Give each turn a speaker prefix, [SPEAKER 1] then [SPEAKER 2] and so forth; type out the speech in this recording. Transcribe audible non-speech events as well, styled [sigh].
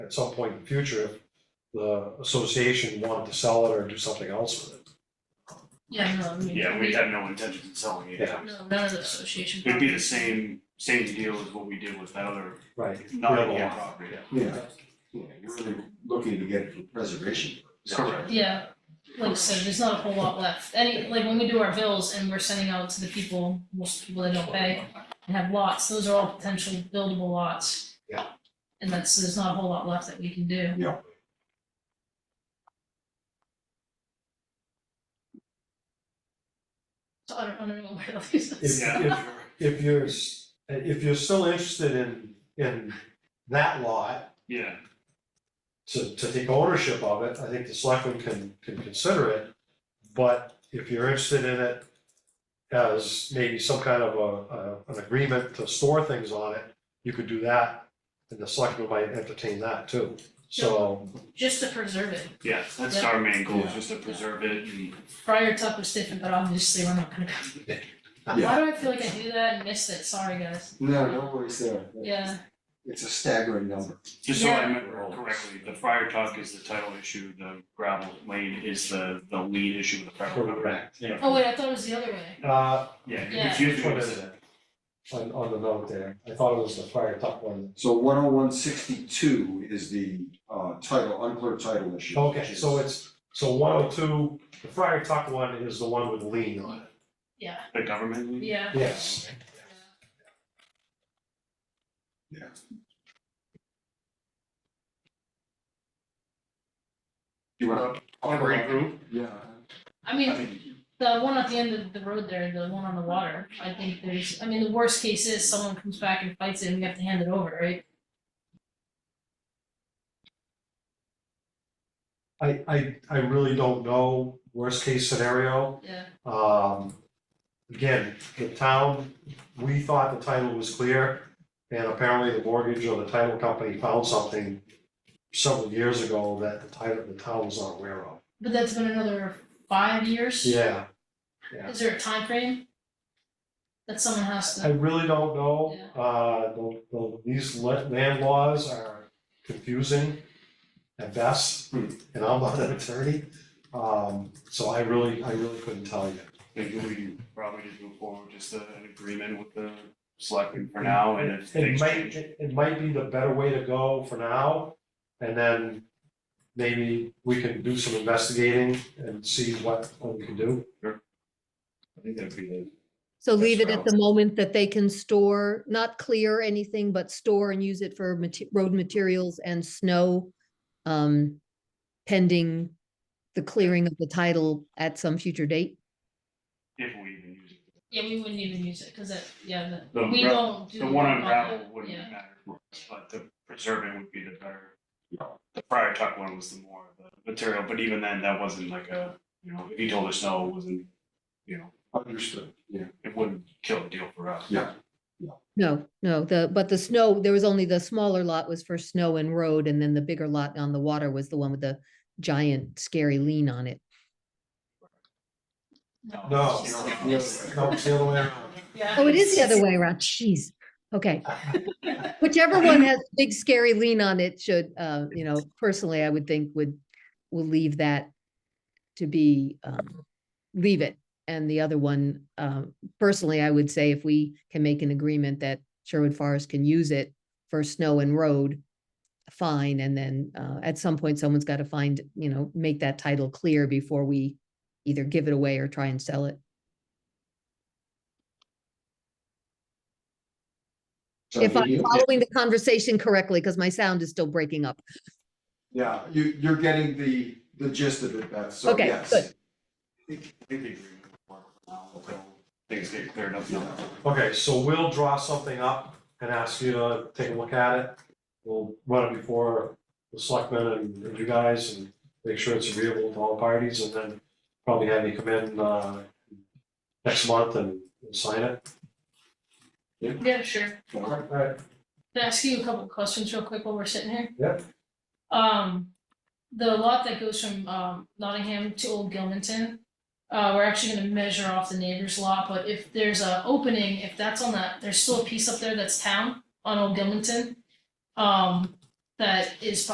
[SPEAKER 1] at some point in the future if the association wanted to sell it or do something else with it.
[SPEAKER 2] Yeah, no, I mean.
[SPEAKER 3] Yeah, we have no intention of selling it.
[SPEAKER 1] Yeah.
[SPEAKER 2] No, none of the association.
[SPEAKER 3] It'd be the
[SPEAKER 2] properties.
[SPEAKER 3] same, same deal as what we did with that other,
[SPEAKER 1] Right.
[SPEAKER 3] not
[SPEAKER 1] Gravel.
[SPEAKER 3] a property.
[SPEAKER 4] Yeah, yeah, you're really looking to get it for preservation. purposes.
[SPEAKER 3] Correct.
[SPEAKER 2] Yeah, like I said, there's not a whole lot left. Any, like when we do our bills and we're sending out to the people, most people that don't pay and have lots, those are all potential buildable lots.
[SPEAKER 4] Yeah.
[SPEAKER 2] And that's, there's not a whole lot left that we can do.
[SPEAKER 4] Yeah.
[SPEAKER 2] So I don't, I don't know where to leave
[SPEAKER 1] If-
[SPEAKER 2] this.
[SPEAKER 3] Yeah,
[SPEAKER 1] if- If you're, s- if you're still interested in, in that lot,
[SPEAKER 3] yeah,
[SPEAKER 1] to, to take ownership of it, I think the selectmen can, can consider it. But if you're interested in it as maybe some kind of a, a, an agreement to store things on it, you could do that, and the selectmen might entertain that too. So,
[SPEAKER 2] Just to preserve it.
[SPEAKER 3] yeah, that's our main goal, is just to preserve it and,
[SPEAKER 2] Prior Tuck was different, but obviously we're not gonna go. Why do I feel like I do that and missed it? Sorry, guys.
[SPEAKER 4] No, no worries there.
[SPEAKER 2] Yeah,
[SPEAKER 4] It's a staggering number.
[SPEAKER 3] just so I
[SPEAKER 2] Yeah.
[SPEAKER 3] remember correctly, the fire talk is the title issue, the gravel lane is the, the lead issue with the fire. truck.
[SPEAKER 1] Correct, yeah.
[SPEAKER 2] oh wait, I thought it was the other way.
[SPEAKER 1] uh,
[SPEAKER 3] Yeah, you
[SPEAKER 2] Yeah.
[SPEAKER 3] confused
[SPEAKER 1] which
[SPEAKER 3] me
[SPEAKER 1] one
[SPEAKER 3] with
[SPEAKER 1] is it? On, on the note there, I thought it was the fire tuck one.
[SPEAKER 4] So one oh one sixty-two is the uh title, unclear title issue.
[SPEAKER 1] Okay, so it's, so one oh two, the fire tuck one is the one with lean on it,
[SPEAKER 2] Yeah,
[SPEAKER 3] the government lead?
[SPEAKER 2] yeah.
[SPEAKER 1] yes.
[SPEAKER 4] You wanna?
[SPEAKER 3] Regroup?
[SPEAKER 4] Yeah.
[SPEAKER 2] I
[SPEAKER 3] I
[SPEAKER 2] mean,
[SPEAKER 3] mean,
[SPEAKER 2] the one at the end of the road there, the one on the water, I think there's, I mean, the worst case is someone comes back and fights it and we have to hand it over, right?
[SPEAKER 1] I, I, I really don't know, worst case scenario,
[SPEAKER 2] Yeah,
[SPEAKER 1] um, again, the town, we thought the title was clear, and apparently the mortgage or the title company found something several years ago that the title, the town was not aware of.
[SPEAKER 2] but that's been another five years?
[SPEAKER 1] Yeah,
[SPEAKER 2] Is there a time frame That someone has
[SPEAKER 1] I
[SPEAKER 2] to,
[SPEAKER 1] really don't know, uh, the, the, these la- land laws are confusing at best,
[SPEAKER 4] Hmm.
[SPEAKER 1] and I'm not an attorney, um, so I really, I really couldn't tell you.
[SPEAKER 3] maybe we probably just move forward, with just uh, an agreement with the selectmen for now and if
[SPEAKER 1] It
[SPEAKER 3] things
[SPEAKER 1] might,
[SPEAKER 3] change.
[SPEAKER 1] it it might be the better way to go for now, and then maybe we can do some investigating and see what, what we can do.
[SPEAKER 3] I think that'd be the
[SPEAKER 5] So
[SPEAKER 3] That's
[SPEAKER 5] leave it
[SPEAKER 3] right.
[SPEAKER 5] at the moment that they can store, not clear anything, but store and use it for mate- road materials and snow um, pending the clearing of the title at some future date.
[SPEAKER 3] if we even use it.
[SPEAKER 2] yeah, we wouldn't even use it, cause that, yeah, that-
[SPEAKER 3] The
[SPEAKER 2] we
[SPEAKER 3] gra-
[SPEAKER 2] don't do.
[SPEAKER 3] The one on
[SPEAKER 2] that.
[SPEAKER 3] gravel wouldn't
[SPEAKER 2] Yeah.
[SPEAKER 3] matter, but the preserving would be the better. The prior tuck one was the more of the material, but even then, that wasn't like a, you know, if he told us no, it wasn't, you know,
[SPEAKER 4] Understood, yeah.
[SPEAKER 3] it wouldn't kill the deal for us.
[SPEAKER 4] Yeah.
[SPEAKER 5] No, no, the, but the snow, there was only the smaller lot was for snow and road, and then the bigger lot on the water was the one with the giant scary lean on it.
[SPEAKER 1] No,
[SPEAKER 3] you know,
[SPEAKER 2] It's-
[SPEAKER 3] yeah.
[SPEAKER 2] it's-
[SPEAKER 1] No, it's the other way around.
[SPEAKER 2] Yeah.
[SPEAKER 5] Oh, it is
[SPEAKER 2] [laughs]
[SPEAKER 5] the other way around, jeez, okay. Whichever one has big scary lean on it should, uh, you know, personally, I would think would, will leave that to be, um, leave it. And the other one, um, personally, I would say if we can make an agreement that Sherwood Forest can use it for snow and road, fine, and then, uh, at some point, someone's got to find, you know, make that title clear before we either give it away or try and sell it.
[SPEAKER 4] So
[SPEAKER 5] If I'm
[SPEAKER 4] you-
[SPEAKER 5] following the conversation correctly, because my sound is still breaking up.
[SPEAKER 4] Yeah, you you're getting the the gist of it, Beth, so
[SPEAKER 5] Okay,
[SPEAKER 4] yes.
[SPEAKER 5] good.
[SPEAKER 3] I think the agreement would work for now until things get cleared up now.
[SPEAKER 1] Okay, so we'll draw something up and ask you to take a look at it. We'll run it before the selectmen and and you guys and make sure it's agreeable to all parties and then probably have you come in, uh, next month and and sign it.
[SPEAKER 2] Yeah, sure.
[SPEAKER 4] All right.
[SPEAKER 1] Alright,
[SPEAKER 2] Can I ask you a couple of questions real quick while we're sitting here?
[SPEAKER 1] Yeah.
[SPEAKER 2] Um, the lot that goes from um Nottingham to Old Gilmanton, uh, we're actually gonna measure off the neighbor's lot, but if there's a opening, if that's on that, there's still a piece up there that's town on Old Gilmanton. Um, that is